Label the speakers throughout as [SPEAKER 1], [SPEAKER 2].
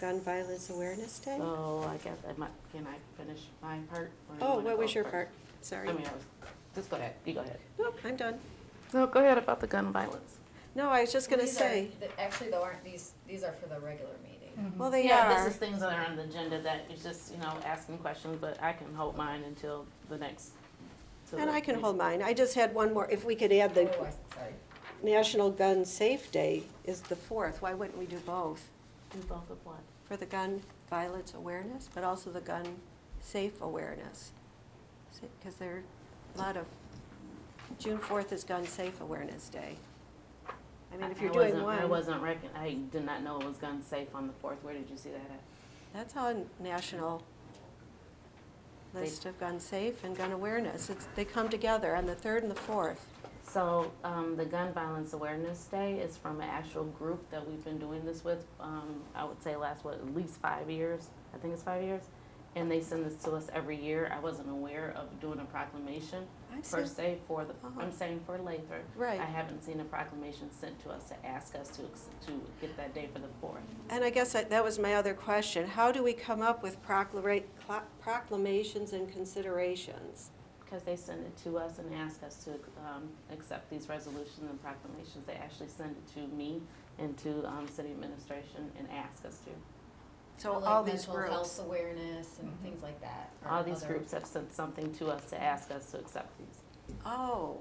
[SPEAKER 1] Gun Violence Awareness Day?
[SPEAKER 2] So I guess, I might- can I finish my part? or you
[SPEAKER 1] Oh,
[SPEAKER 2] wanna
[SPEAKER 1] what
[SPEAKER 2] go
[SPEAKER 1] was your
[SPEAKER 2] first?
[SPEAKER 1] part?
[SPEAKER 2] I
[SPEAKER 1] Sorry.
[SPEAKER 2] mean, I was, just go ahead, you go ahead.
[SPEAKER 1] Nope, I'm done.
[SPEAKER 2] No, go ahead about the gun violence.
[SPEAKER 1] No, I was just gonna
[SPEAKER 3] These are-
[SPEAKER 1] say,
[SPEAKER 3] th- Actually, though, aren't these, these are for the regular meeting.
[SPEAKER 1] well, they
[SPEAKER 2] Yeah,
[SPEAKER 1] are.
[SPEAKER 2] this is things that are on the agenda that is just, you know, asking questions, but I can hold mine until the next. till
[SPEAKER 1] And
[SPEAKER 2] the
[SPEAKER 1] I can
[SPEAKER 2] next-
[SPEAKER 1] hold mine. I just had one more. If we could add the
[SPEAKER 3] Oh, I- sorry.
[SPEAKER 1] National Gun Safe Day is the fourth. Why wouldn't we do both?
[SPEAKER 2] Do both of what?
[SPEAKER 1] For the gun violence awareness, but also the gun safe awareness. Because there are a lot of, June fourth is Gun Safe Awareness Day. I mean, if you're doing
[SPEAKER 2] wasn't- I
[SPEAKER 1] one,
[SPEAKER 2] wasn't reckon, I did not know it was gun safe on the fourth, where did you see that at?
[SPEAKER 1] that's on national
[SPEAKER 2] They-
[SPEAKER 1] list of gun safe and gun awareness. It's, they come together on the third and the fourth.
[SPEAKER 2] So, um, the Gun Violence Awareness Day is from an actual group that we've been doing this with, um, I would say last, what, at least five years? I think it's five years. And they send this to us every year. I wasn't aware of doing a proclamation
[SPEAKER 1] I've
[SPEAKER 2] per
[SPEAKER 1] seen,
[SPEAKER 2] se for the,
[SPEAKER 1] Uh-huh.
[SPEAKER 2] I'm saying for Lathrop. I
[SPEAKER 1] right.
[SPEAKER 2] haven't seen a proclamation sent to us to ask us to, ex- to get that day for the fourth.
[SPEAKER 1] And I guess that that was my other question. How do we come up with proclara- cla- proclamations and considerations?
[SPEAKER 2] Because they send it to us and ask us to um, accept these resolutions and proclamations. They actually send it to me and to um, city administration and ask us to.
[SPEAKER 1] So
[SPEAKER 3] Like
[SPEAKER 1] all these
[SPEAKER 3] Mental health
[SPEAKER 1] groups.
[SPEAKER 3] awareness
[SPEAKER 1] Mm-hmm.
[SPEAKER 3] and things like that. or
[SPEAKER 2] All these
[SPEAKER 3] other-
[SPEAKER 2] groups have sent something to us to ask us to accept these.
[SPEAKER 1] Oh,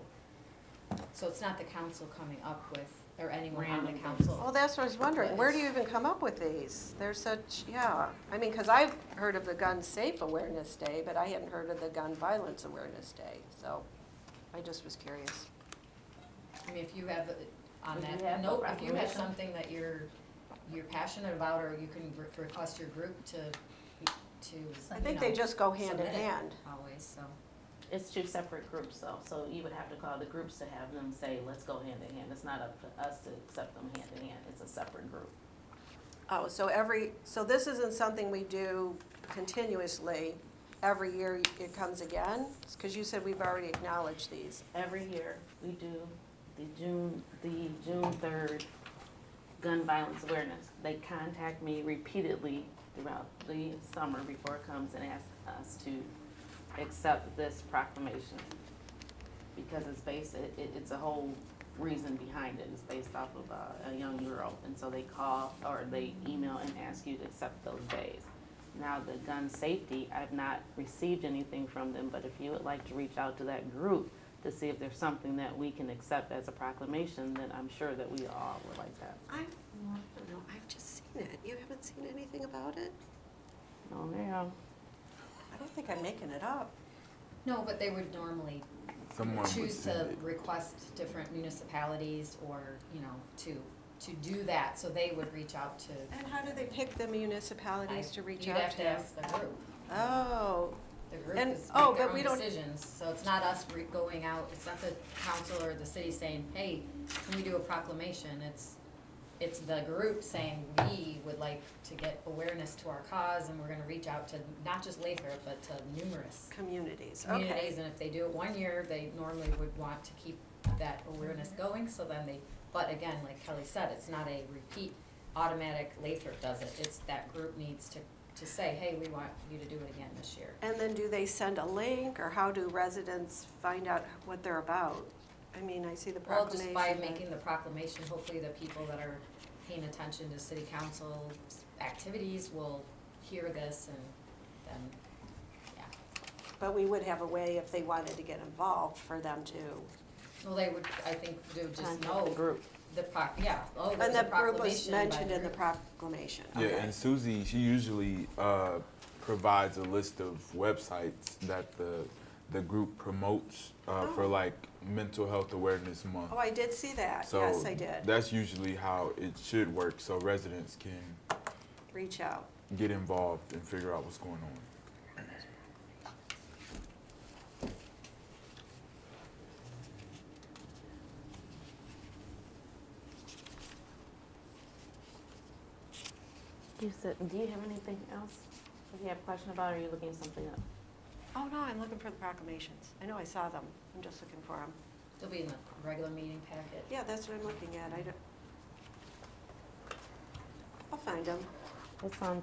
[SPEAKER 3] So it's not the council coming up with, or anyone on the
[SPEAKER 2] Random
[SPEAKER 1] well,
[SPEAKER 3] council.
[SPEAKER 1] that's what I was wondering. Where do you even come up with these? They're such, yeah. I mean, because I've heard of the Gun Safe Awareness Day, but I hadn't heard of the Gun Violence Awareness Day. So I just was curious.
[SPEAKER 3] I mean, if you have, uh, on
[SPEAKER 2] If you
[SPEAKER 3] that
[SPEAKER 2] have a
[SPEAKER 3] note, if you have
[SPEAKER 2] proclamation.
[SPEAKER 3] something that you're, you're passionate about, or you can re- request your group to, to,
[SPEAKER 1] I
[SPEAKER 3] you
[SPEAKER 1] think they
[SPEAKER 3] know,
[SPEAKER 1] just go hand in
[SPEAKER 3] submit it
[SPEAKER 1] hand.
[SPEAKER 3] Always, so.
[SPEAKER 2] It's two separate groups though, so you would have to call the groups to have them say, let's go hand in hand. It's not up to us to accept them hand in hand. It's a separate group.
[SPEAKER 1] Oh, so every, so this isn't something we do continuously, every year it comes again? Because you said we've already acknowledged these.
[SPEAKER 2] Every year, we do the June, the June third gun violence awareness. They contact me repeatedly throughout the summer before it comes and ask us to accept this proclamation. Because it's based, it, it- it's a whole reason behind it. It's based off of a, a young girl. And so they call or they email and ask you to accept those days. Now, the gun safety, I've not received anything from them, but if you would like to reach out to that group to see if there's something that we can accept as a proclamation, then I'm sure that we all would like that.
[SPEAKER 1] I, I don't know, I've just seen it. You haven't seen anything about it?
[SPEAKER 2] Oh, ma'am.
[SPEAKER 1] I don't think I'm making it up.
[SPEAKER 3] No, but they would normally
[SPEAKER 4] Someone would
[SPEAKER 3] choose to
[SPEAKER 4] send it.
[SPEAKER 3] request different municipalities or, you know, to, to do that, so they would reach out to.
[SPEAKER 1] And how do they pick the municipalities to reach
[SPEAKER 3] You'd
[SPEAKER 1] out
[SPEAKER 3] have to
[SPEAKER 1] to?
[SPEAKER 3] ask the group.
[SPEAKER 1] Oh,
[SPEAKER 3] The group
[SPEAKER 1] And-
[SPEAKER 3] is
[SPEAKER 1] oh,
[SPEAKER 3] make their
[SPEAKER 1] but we
[SPEAKER 3] own
[SPEAKER 1] don't-
[SPEAKER 3] decisions, so it's not us re- going out, it's not the council or the city saying, hey, can we do a proclamation? It's, it's the group saying, we would like to get awareness to our cause, and we're gonna reach out to not just Lathrop, but to numerous
[SPEAKER 1] communities, okay.
[SPEAKER 3] communities, and if they do it one year, they normally would want to keep that awareness going, so then they, but again, like Kelly said, it's not a repeat automatic Lathrop does it, it's that group needs to, to say, hey, we want you to do it again this year.
[SPEAKER 1] And then do they send a link, or how do residents find out what they're about? I mean, I see the
[SPEAKER 3] Well,
[SPEAKER 1] proclamation.
[SPEAKER 3] just by
[SPEAKER 1] but-
[SPEAKER 3] making the proclamation, hopefully the people that are paying attention to city council activities will hear this and then, yeah.
[SPEAKER 1] But we would have a way, if they wanted to get involved, for them to
[SPEAKER 3] Well, they would, I think, do just
[SPEAKER 2] Contact the
[SPEAKER 3] know
[SPEAKER 2] group.
[SPEAKER 3] the proc, yeah, oh,
[SPEAKER 1] And
[SPEAKER 3] there's a
[SPEAKER 1] that group was
[SPEAKER 3] proclamation by
[SPEAKER 1] mentioned in the
[SPEAKER 3] group.
[SPEAKER 1] proclamation,
[SPEAKER 4] Yeah,
[SPEAKER 1] okay.
[SPEAKER 4] and Susie, she usually uh, provides a list of websites that the the group promotes uh, for
[SPEAKER 1] Oh.
[SPEAKER 4] like Mental Health Awareness Month.
[SPEAKER 1] Oh, I did see that,
[SPEAKER 4] so
[SPEAKER 1] yes, I did,
[SPEAKER 4] That's usually how it should work, so residents can
[SPEAKER 1] reach out.
[SPEAKER 4] get involved and figure out what's going on.
[SPEAKER 2] You said, do you have anything else? If you have a question about, it, or are you looking something up?
[SPEAKER 1] Oh, no, I'm looking for the proclamations, I know I saw them, I'm just looking for them.
[SPEAKER 3] They'll be in the regular meeting packet.
[SPEAKER 1] Yeah, that's what I'm looking at, I don't. I'll find them,
[SPEAKER 2] It's on